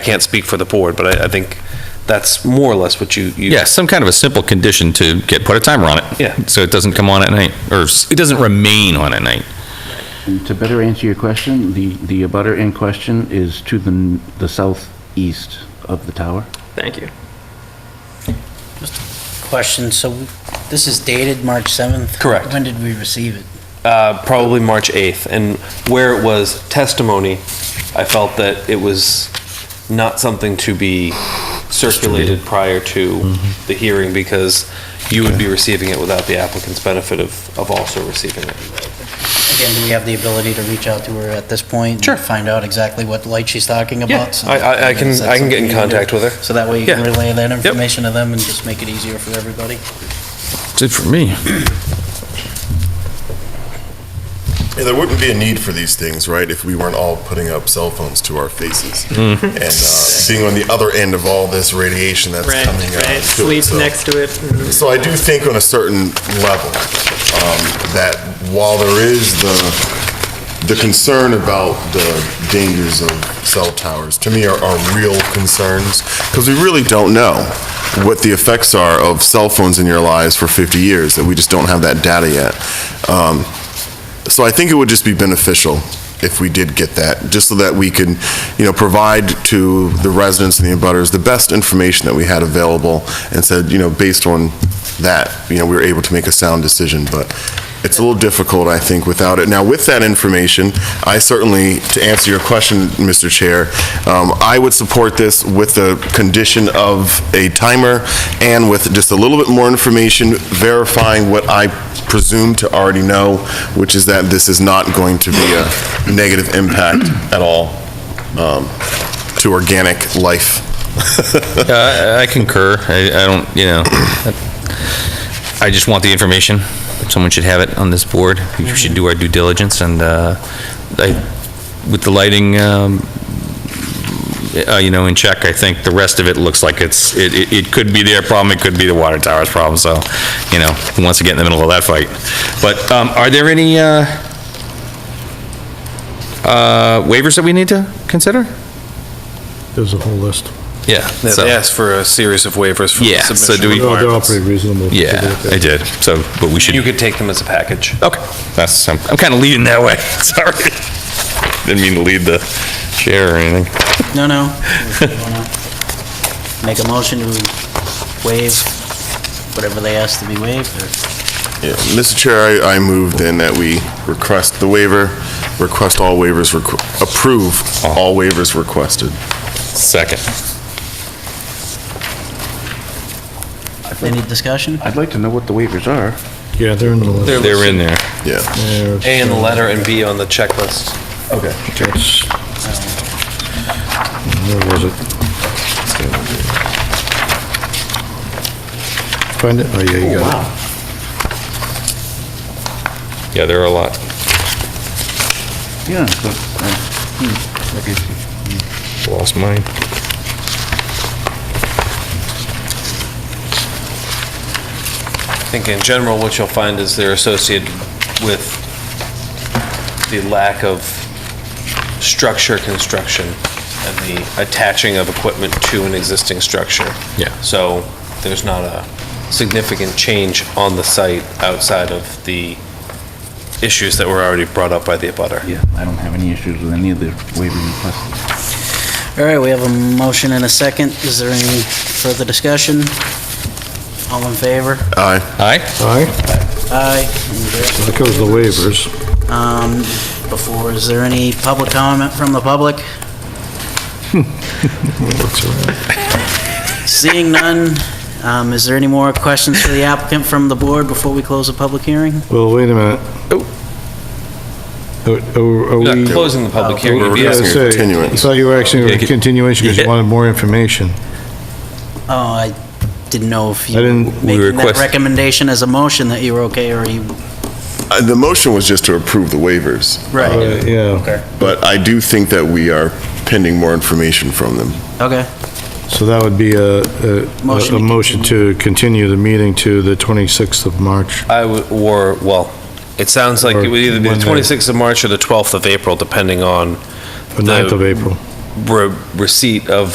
can't speak for the board, but I, I think that's more or less what you, you. Yeah, some kind of a simple condition to get, put a timer on it. Yeah. So it doesn't come on at night, or s- it doesn't remain on at night. To better answer your question, the, the abutter in question is to the, n- the southeast of the tower. Thank you. Question, so this is dated March 7th? Correct. When did we receive it? Uh, probably March 8th, and where it was testimony, I felt that it was not something to be circulated prior to the hearing because you would be receiving it without the applicant's benefit of, of also receiving it. Again, do we have the ability to reach out to her at this point? Sure. and Find out exactly what light she's talking Yeah, about? So- I- I- I can- Is that I can get in something you do? contact with her. So that way you can Yeah. relay that information to them and just make it easier for everybody? That's it for me. Yeah, there wouldn't be a need for these things, right, if we weren't all putting up cell phones to our faces Mm-hmm. and uh, being on the other end of all this radiation that's Right, coming out. right, to it. sleep So- next to it. Mhm. So I do think on a certain level um, that while there is the the concern about the dangers of cell towers, to me are, are real concerns because we really don't know what the effects are of cell phones in your lives for 50 years. That we just don't have that data yet. Um, so I think it would just be beneficial if we did get that, just so that we can, you know, provide to the residents and the abutters the best information that we had available, and said, you know, based on that, you know, we were able to make a sound decision, but it's a little difficult, I think, without it. Now, with that information, I certainly, to answer your question, Mr. Chair, um, I would support this with the condition of a timer and with just a little bit more information verifying what I presume to already know, which is that this is not going to be a negative impact at all um, to organic life. Uh, I I concur. I, I don't, you know, I just want the information. Someone should have it on this board. We should do our due diligence, and uh, I- with the lighting, um, uh, you know, in check, I think the rest of it looks like it's, it, it- it could be their problem, it could be the water tower's problem, so, you know, who wants to get in the middle of that fight? But um, are there any uh, uh, waivers that we need to consider? There's a whole list. Yeah. so- They asked for a series of waivers from the Yeah, so submission do we- They're all- they're all requirements. pretty reasonable. if you Yeah, look at I it. did. So, but we should. You could take them as a package. Okay, that's, I'm, I'm kind of leading that way, sorry. Didn't mean to lead the chair or anything. No, no. If you wanna Make a motion to waive whatever they ask to be waived, or Yeah, Mr. Chair, I I move then that we request the waiver, request all waivers, requ- approve all waivers requested. Second. any discussion? I'd like to know what the waivers are. Yeah, they're in the list. They're in there. Yeah. They're- A in the letter and B on the checklist. that's- Where was it? Find it? Oh, yeah, you got it. Yeah, there are a lot. Yeah. so, uh, hmm, I guess you- Lost mine. I think in general, what you'll find is they're associated with the lack of structure construction and the attaching of equipment to an existing structure. Yeah. So there's not a significant change on the site outside of the issues that were already brought up by the abutter. Yeah, I don't have any issues with any of the waiver requests. All right, we have a motion and a second. Is there any further discussion? All in favor? Aye. Aye? All right, Aye. And there- that goes the waivers. Um, before, is there any public comment from the public? That's all right. Seeing none, um, is there any more questions for the applicant from the board before we close the public hearing? Well, wait a minute. Oh. Oh. Are- Are are We're we? not Uh, closing the public Oh, hearing. we're You'd be gonna asking- asking for continuance. I thought you were asking Yeah, for get- continuation because you Yeah. wanted more information. Oh, I didn't know if you. I didn't- we Making that request- recommendation as a motion that you were okay or you. Uh, The motion was just to approve the waivers, Uh, Yeah, but I do think that we are pending more information from them. Okay, so that would be a, a- Motion a, to a motion to continue the meeting to the 26th of March. I would, or, well, it sounds like it would either be Or the Monday. 26th of March or the 12th of April, depending on The 9th of April. re- receipt of